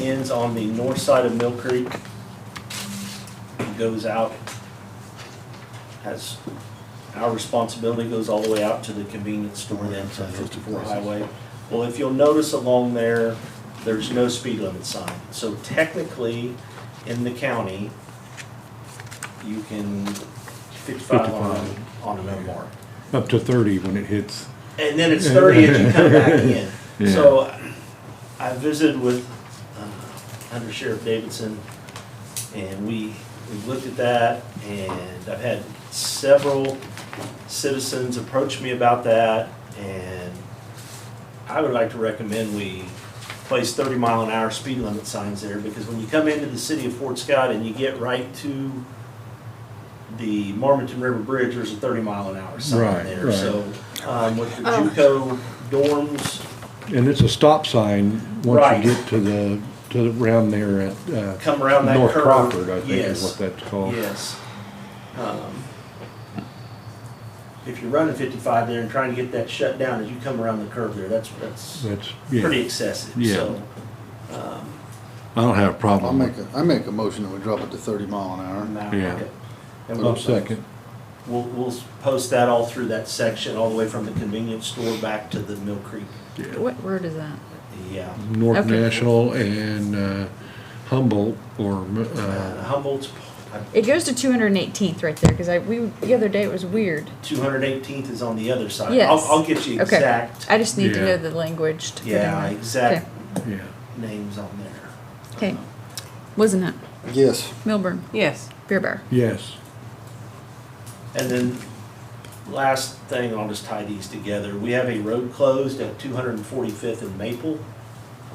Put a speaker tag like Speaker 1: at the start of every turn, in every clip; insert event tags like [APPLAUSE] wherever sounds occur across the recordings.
Speaker 1: ends on the north side of Mill Creek. It Goes out, has, our responsibility goes all the way out to the convenience store then to fifty-four highway. Well, if you'll notice along there, there's no speed limit sign. So technically, in the county, you can fifty-five on,
Speaker 2: 55.
Speaker 1: on an unmarked.
Speaker 2: Up to thirty when it hits.
Speaker 1: And then it's thirty if you come back in.
Speaker 2: Yeah.
Speaker 1: So I visited with uh, Under Sheriff Davidson and we, we looked at that and I've had several citizens approach me about that and I would like to recommend we place thirty mile an hour speed limit signs there because when you come into the city of Fort Scott and you get right to the Marmonton River Bridge, there's a thirty mile an hour sign
Speaker 2: Right,
Speaker 1: there,
Speaker 2: right.
Speaker 1: so um, with the
Speaker 3: Oh.
Speaker 1: JUCO dorms
Speaker 2: And it's a stop sign once
Speaker 1: Right.
Speaker 2: you get to the, to the, round there at, uh,
Speaker 1: come around that
Speaker 2: North
Speaker 1: curve.
Speaker 2: Crawford, I think is
Speaker 1: Yes.
Speaker 2: what that's called.
Speaker 1: Yes. Um, If you're running fifty-five there and trying to get that shut down as you come around the curve there, that's, that's
Speaker 2: That's,
Speaker 1: pretty
Speaker 2: yeah,
Speaker 1: excessive,
Speaker 2: Yeah.
Speaker 1: so. um,
Speaker 2: I don't have a
Speaker 4: I'll
Speaker 2: problem
Speaker 4: make
Speaker 2: with
Speaker 4: a, I make a motion that we drop it to thirty mile an hour.
Speaker 1: now-
Speaker 2: Yeah.
Speaker 1: And
Speaker 2: it.
Speaker 1: we'll,
Speaker 2: I'll second.
Speaker 1: we'll, we'll post that all through that section, all the way from the convenience store back to the Mill Creek. uh,
Speaker 3: What word is that?
Speaker 1: Yeah.
Speaker 2: North
Speaker 3: Okay.
Speaker 2: National and, uh, Humboldt or,
Speaker 1: Uh,
Speaker 2: uh,
Speaker 1: Humboldt's
Speaker 3: It goes to 218th right there because I we the other day it was weird.
Speaker 1: two hundred eighteenth is on the other side.
Speaker 3: Yes.
Speaker 1: I'll, I'll get you
Speaker 3: Okay.
Speaker 1: exact,
Speaker 3: I just need to
Speaker 2: Yeah.
Speaker 3: know the language. To put in
Speaker 1: yeah,
Speaker 3: there.
Speaker 1: exact
Speaker 2: yeah.
Speaker 1: names on there.
Speaker 3: Okay. okay. Wasn't it
Speaker 4: Yes,
Speaker 3: Milburn
Speaker 5: Yes.
Speaker 3: Beer Bar?
Speaker 2: Yes,
Speaker 1: And then, last thing, I'll just tie these together. We have a road closed at 245th and Maple.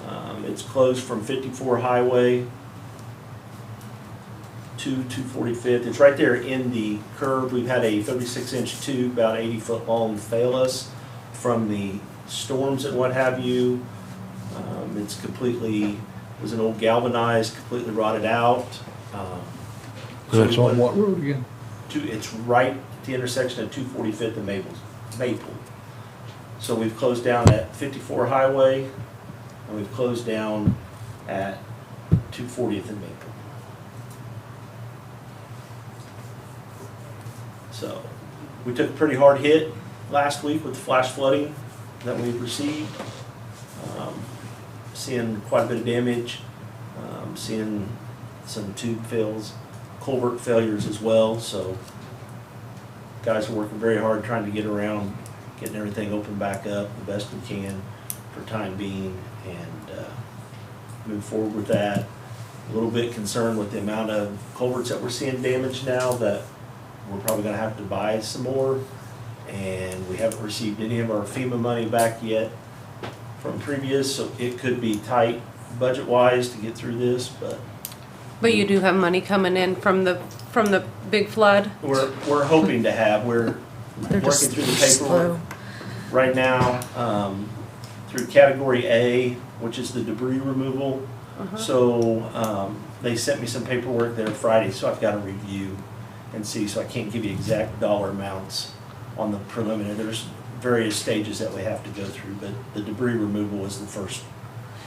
Speaker 1: Um, It's closed from 54 Highway to 245th. It's right there in the curve. We've had a 36-inch tube, about 80-foot long, fail us from the storms and what have you. Um, It's completely, was an old galvanized, completely rotted out. Um, so
Speaker 2: that's
Speaker 1: we
Speaker 2: on
Speaker 1: went-
Speaker 2: what road again?
Speaker 1: two, it's right at the intersection of two forty-fifth and Maple, Maple. So we've closed down at fifty-four Highway, and we've closed down at two fortieth and Maple. So, we took a pretty hard hit last week with the flash flooding that we received. Um, Seeing quite a bit of damage, um, seeing some tube fills, culvert failures as well, so guys are working very hard trying to get around, getting everything open back up the best we can for time being and uh, move forward with that. A little bit concerned with the amount of culverts that we're seeing damaged now that we're probably gonna have to buy some more. And we haven't received any of our FEMA money back yet from previous, so it could be tight budget-wise to get through this, but
Speaker 5: But you do have money coming in from the, from the big flood?
Speaker 1: we're, we're hoping to have, we're
Speaker 3: [LAUGHS]
Speaker 1: working
Speaker 3: They're just
Speaker 1: through
Speaker 3: they're
Speaker 1: the paperwork
Speaker 3: slow.
Speaker 1: right now, um, through category A, which is the debris removal.
Speaker 3: Uh-huh.
Speaker 1: So, um, they sent me some paperwork there Friday, so I've gotta review and see, so I can't give you exact dollar amounts on the preliminary, there's various stages that we have to go through, but the debris removal is the first.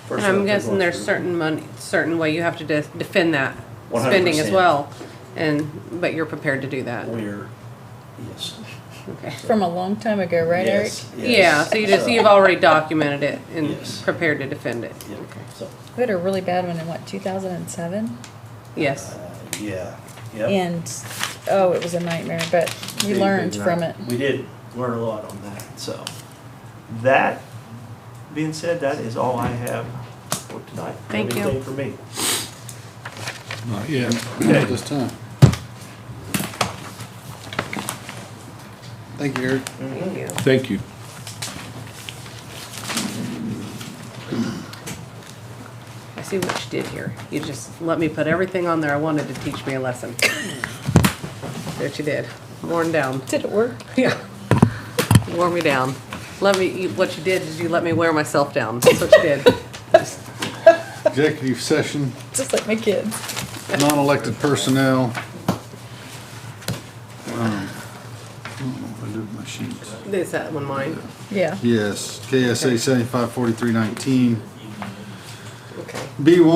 Speaker 1: first
Speaker 5: And
Speaker 1: step
Speaker 5: I'm
Speaker 1: they're
Speaker 5: guessing
Speaker 1: going
Speaker 5: there's
Speaker 1: through.
Speaker 5: certain money, certain way you have to de- defend that spending as
Speaker 1: 100%.
Speaker 5: well. And, but you're prepared to do that,
Speaker 1: We're, yes.
Speaker 5: okay.
Speaker 3: From a long time ago, right,
Speaker 1: Yes, yes.
Speaker 5: Yeah, so you just,
Speaker 1: So-
Speaker 5: you've already documented it and
Speaker 1: Yes.
Speaker 5: prepared to defend it.
Speaker 1: Yeah, so,
Speaker 3: Eric? We had a really bad one in what 2007,
Speaker 5: Yes,
Speaker 1: uh, yeah, yep.
Speaker 3: and oh, it was a nightmare. But we
Speaker 1: Big,
Speaker 3: learned
Speaker 1: big
Speaker 3: from
Speaker 1: night.
Speaker 3: it.
Speaker 1: We did learn a lot on that, so. That being said, that is all I have for tonight.
Speaker 5: Thank you.
Speaker 1: Anything for me?
Speaker 2: Not yet.
Speaker 1: Okay.
Speaker 4: at this time. Thank you, Eric.
Speaker 5: thank you.
Speaker 2: Thank you.
Speaker 5: I see what you did here. You just let me put everything on there I wanted to teach me a lesson. That you did. Worn down.
Speaker 3: Did it work?
Speaker 5: Yeah. Wore me down. Let me, you- what you did is you let me wear myself down. That's what you did.
Speaker 4: Executive session,
Speaker 3: Just like my kids.
Speaker 4: non-elected personnel. Um, I don't know if I did my sheets.
Speaker 5: Is that one mine?
Speaker 3: Yeah.
Speaker 4: Yes, KSA seventy-five forty-three nineteen.
Speaker 5: Okay.
Speaker 4: B one,